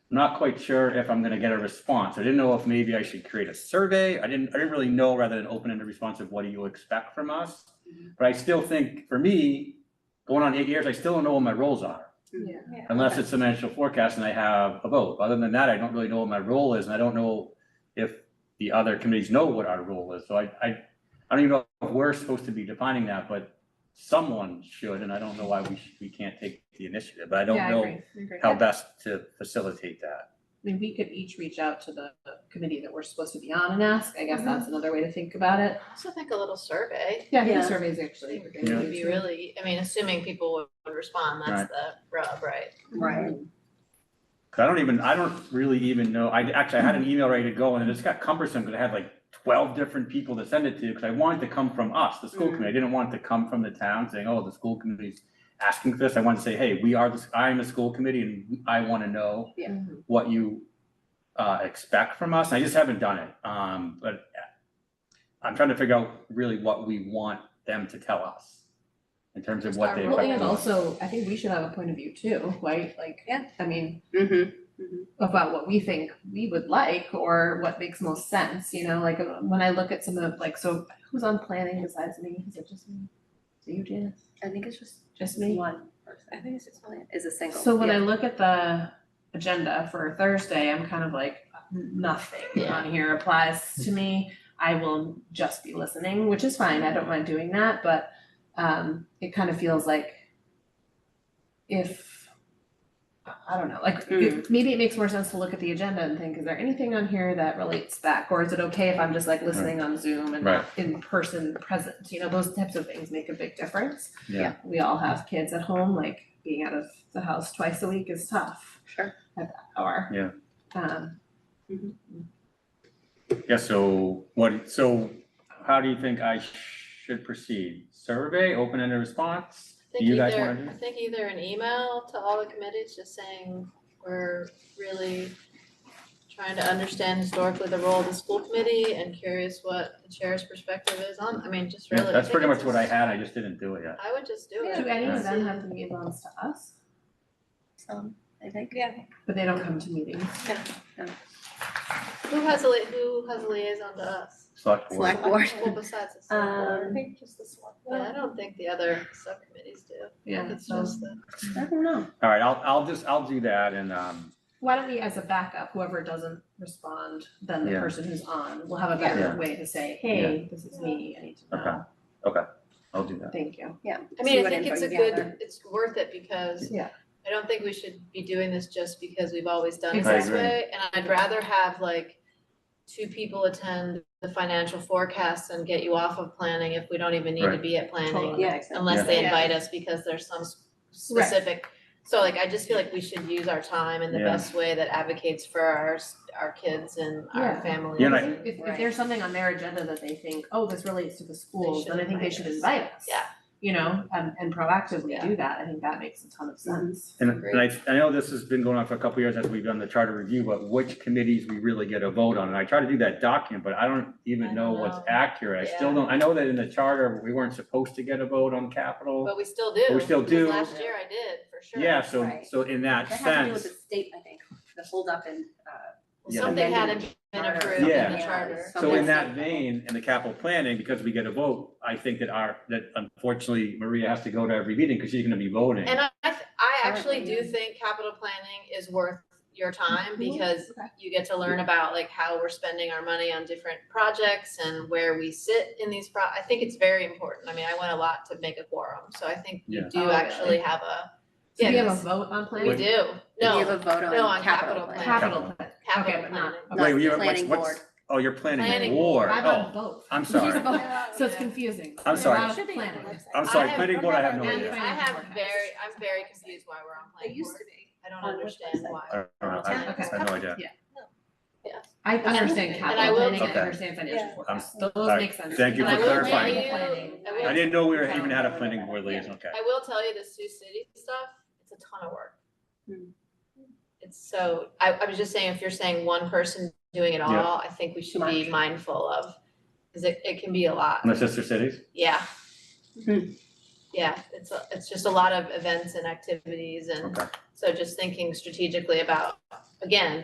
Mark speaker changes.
Speaker 1: not quite sure if I'm gonna get a response. I didn't know if maybe I should create a survey. I didn't, I didn't really know rather than open-ended response of what do you expect from us?
Speaker 2: Mm-hmm.
Speaker 1: But I still think, for me, going on eight years, I still don't know what my roles are.
Speaker 2: Yeah.
Speaker 1: Unless it's financial forecast and I have a vote. Other than that, I don't really know what my role is and I don't know if the other committees know what our role is. So I, I, I don't even know if we're supposed to be defining that, but someone should, and I don't know why we, sh- we can't take the initiative, but I don't
Speaker 2: Yeah,
Speaker 1: know
Speaker 2: agree, I agree.
Speaker 1: how
Speaker 2: I
Speaker 1: best to facilitate that.
Speaker 2: mean, we could each reach out to the the committee that we're supposed to be on and ask, I guess that's another way to think about it.
Speaker 3: Also think a little survey
Speaker 2: Yeah, I think
Speaker 4: Yeah.
Speaker 2: surveys actually. a good
Speaker 1: Yeah.
Speaker 2: idea
Speaker 3: would be
Speaker 2: too.
Speaker 3: really, I mean, assuming people would respond, that's
Speaker 1: Right.
Speaker 3: the rub, right?
Speaker 2: Right.
Speaker 1: Cause I don't even, I don't really even know, I actually, I had an email ready to go and it just got cumbersome because I had like twelve different people to send it to, because I wanted to come from us, the school
Speaker 2: Mhm.
Speaker 1: committee, I didn't want it to come from the town saying, oh, the school committee's asking for this, I want to say, hey, we are, the s- I am the school committee and I want to know
Speaker 2: Yeah.
Speaker 1: what you uh, expect from us, I just haven't done it, um, but I'm trying to figure out really what we want them to tell us in terms of what they
Speaker 2: Well,
Speaker 1: expect
Speaker 2: and
Speaker 1: from us.
Speaker 2: also, I think we should have a point of view too, right? Like,
Speaker 3: Yeah.
Speaker 2: I mean,
Speaker 4: Mm-hmm.
Speaker 2: about what we think we would like or what makes most sense, you know, like uh, when I look at some of, like, so who's on planning besides me? Is it just me? Is it you, Janice?
Speaker 4: I think it's just
Speaker 2: Just me?
Speaker 4: one person. I think it's just one, is a single.
Speaker 2: So when I look at the agenda for Thursday, I'm kind of like, nothing
Speaker 3: Yeah.
Speaker 2: on here applies to me. I will just be listening, which is fine. I don't mind doing that, but um it kind of feels like if I- I don't know, like
Speaker 1: Hmm.
Speaker 2: if- maybe it makes more sense to look at the agenda and think, is there anything on here that relates back? Or is it okay if I'm just like listening on Zoom and
Speaker 1: Right.
Speaker 2: not in person present? You know, those types of things make a big difference
Speaker 1: Yeah,
Speaker 2: we all have kids at home, like being out of the house twice a week is tough
Speaker 4: Sure.
Speaker 2: or.
Speaker 1: Yeah.
Speaker 2: Um,
Speaker 1: yeah, so what, so how do you think I should proceed? Survey, open-ended response?
Speaker 3: I think
Speaker 1: You guys
Speaker 3: either-
Speaker 1: wanna do
Speaker 3: I
Speaker 1: it?
Speaker 3: think either an email to all the committees just saying, we're really trying to understand historically the role of the school committee and curious what the chair's perspective is on, I mean, just
Speaker 1: Yeah,
Speaker 3: really.
Speaker 1: That's
Speaker 3: think
Speaker 1: pretty
Speaker 3: it's
Speaker 1: much what I
Speaker 3: just-
Speaker 1: had, I just didn't do it yet.
Speaker 3: I would just do
Speaker 2: do
Speaker 3: it.
Speaker 2: any of them
Speaker 3: See.
Speaker 2: have to be loans to us,
Speaker 4: Some, I think.
Speaker 2: but they don't come to meetings?
Speaker 3: Who has a, li- who has a liaison to us?
Speaker 1: Select board.
Speaker 4: Select board.
Speaker 3: Well, besides the select board.
Speaker 2: Um,
Speaker 3: Yeah, I don't think the other subcommittees do.
Speaker 2: yeah,
Speaker 3: It's
Speaker 2: so
Speaker 3: just the,
Speaker 4: I don't know.
Speaker 1: All right, I'll, I'll just, I'll do that and, um,
Speaker 2: why don't we, as a backup, whoever doesn't respond, then the
Speaker 1: Yeah.
Speaker 2: person who's on will have a
Speaker 1: Yeah.
Speaker 2: better way to say, hey, this is me, I need to know,
Speaker 1: I'll do that.
Speaker 2: thank you.
Speaker 3: I
Speaker 4: See
Speaker 3: mean, I
Speaker 4: what
Speaker 3: think it's
Speaker 4: info you
Speaker 3: a good,
Speaker 4: gather.
Speaker 3: it's worth it because
Speaker 2: Yeah.
Speaker 3: I don't think we should be doing this just because we've always done it this
Speaker 2: Exactly.
Speaker 1: I agree.
Speaker 3: way. And I'd rather have like two people attend the financial forecasts and get you off of planning if we don't even need to
Speaker 1: Right.
Speaker 3: be at planning.
Speaker 2: Totally.
Speaker 4: Yeah, exactly.
Speaker 3: Unless they
Speaker 2: Yeah.
Speaker 3: invite us because there's some s-
Speaker 2: Right.
Speaker 3: specific. So like, I just feel like we should use our time in the
Speaker 1: Yeah.
Speaker 3: best way that advocates for our, s- our kids and our
Speaker 2: Yeah.
Speaker 3: families.
Speaker 1: Yeah, and I-
Speaker 2: If, if there's something on their agenda that they think, oh, this relates to the schools,
Speaker 3: should
Speaker 2: then I think they
Speaker 3: invite
Speaker 2: should
Speaker 3: us.
Speaker 2: invite us.
Speaker 3: Yeah.
Speaker 2: You know, and, and proactively
Speaker 3: Yeah.
Speaker 2: do that, I think that makes a ton of sense.
Speaker 1: And, and I, I know this has been going on for a couple years as we've done the charter review, but which committees we really get a vote on, and I try to do that document, but I don't
Speaker 3: I
Speaker 1: even know
Speaker 3: don't
Speaker 1: what's
Speaker 3: know.
Speaker 1: accurate. I still
Speaker 3: Yeah.
Speaker 1: don't, I know that in the charter, we weren't supposed to get a vote on capital.
Speaker 3: But we still do.
Speaker 1: But we still
Speaker 3: because
Speaker 1: do.
Speaker 3: Last year I did, for sure.
Speaker 1: Yeah, so,
Speaker 4: Right.
Speaker 1: so in that
Speaker 4: That
Speaker 1: sense.
Speaker 4: had to do with the state, I think, the holdup in, uh,
Speaker 3: Well,
Speaker 1: Yeah.
Speaker 3: Something had
Speaker 4: Amended
Speaker 3: been
Speaker 4: charter.
Speaker 3: approved in the
Speaker 4: Yeah.
Speaker 3: charter.
Speaker 1: So in
Speaker 4: Something-
Speaker 1: that vein, in the capital planning, because we get a vote, I think that our, that unfortunately Maria has to go to every meeting because she's gonna be voting.
Speaker 3: And I, I th- I actually
Speaker 4: Currently,
Speaker 3: do
Speaker 4: yeah.
Speaker 3: think capital planning is worth your time
Speaker 4: Mm-hmm.
Speaker 3: because
Speaker 2: okay.
Speaker 3: you get to learn about like how we're spending our money on different projects and where we sit in these pro, I think it's very important. I mean, I went a lot to make a quorum, so I think you
Speaker 1: Yeah.
Speaker 2: Oh,
Speaker 3: do
Speaker 2: really?
Speaker 3: actually have a,
Speaker 2: So we
Speaker 3: yeah,
Speaker 2: have a
Speaker 3: it's-
Speaker 2: vote on
Speaker 3: we
Speaker 2: planning?
Speaker 3: do.
Speaker 4: we have
Speaker 3: No,
Speaker 4: a vote
Speaker 3: no, on
Speaker 4: on
Speaker 3: capital
Speaker 4: capital
Speaker 3: plan.
Speaker 4: plan.
Speaker 2: Capital plan, okay,
Speaker 3: capital
Speaker 2: but not.
Speaker 3: planning.
Speaker 2: okay.
Speaker 1: Wait,
Speaker 4: Not the
Speaker 1: you're- what's-
Speaker 4: planning
Speaker 1: what's-
Speaker 4: board.
Speaker 1: Oh, you're planning
Speaker 3: Planning
Speaker 1: war.
Speaker 2: I'm on
Speaker 1: Oh,
Speaker 2: both.
Speaker 1: I'm
Speaker 2: She's
Speaker 1: sorry.
Speaker 2: both. So it's
Speaker 3: Yeah.
Speaker 2: confusing.
Speaker 1: I'm
Speaker 2: There's a
Speaker 1: sorry.
Speaker 2: lot of planning.
Speaker 1: I'm sorry,
Speaker 3: I
Speaker 1: planning board, I have no
Speaker 3: And
Speaker 1: idea.
Speaker 3: I have
Speaker 2: Forecast.
Speaker 3: very, I'm very confused why we're on planning board.
Speaker 4: be.
Speaker 3: I don't
Speaker 4: On which
Speaker 3: understand
Speaker 4: website?
Speaker 3: why.
Speaker 1: I don't know, I have- I have no idea.
Speaker 3: Yeah.
Speaker 2: I
Speaker 3: And-
Speaker 2: understand
Speaker 3: and I
Speaker 2: capital
Speaker 3: will-
Speaker 2: planning, I
Speaker 1: Okay.
Speaker 2: understand financial
Speaker 4: Yeah.
Speaker 2: forecast,
Speaker 1: I'm-
Speaker 2: those
Speaker 1: all right.
Speaker 2: make sense.
Speaker 1: Thank you
Speaker 3: And I
Speaker 1: for
Speaker 3: will
Speaker 1: clarifying.
Speaker 3: tell you-
Speaker 2: Planning.
Speaker 3: I will
Speaker 1: I didn't know we were, even had a planning board
Speaker 4: Yeah.
Speaker 1: liaison, okay.
Speaker 3: I will tell you the Sioux City stuff, it's a ton of work.
Speaker 4: Hmm.
Speaker 3: It's so, I, I was just saying, if you're saying one person doing it
Speaker 1: Yeah.
Speaker 3: all, I think we should be
Speaker 4: Much.
Speaker 3: mindful of, cause it, it can be a lot,
Speaker 1: And the sister cities?
Speaker 3: yeah. yeah, it's, a- it's just a lot of events and activities and
Speaker 1: Okay.
Speaker 3: so just thinking strategically about, again,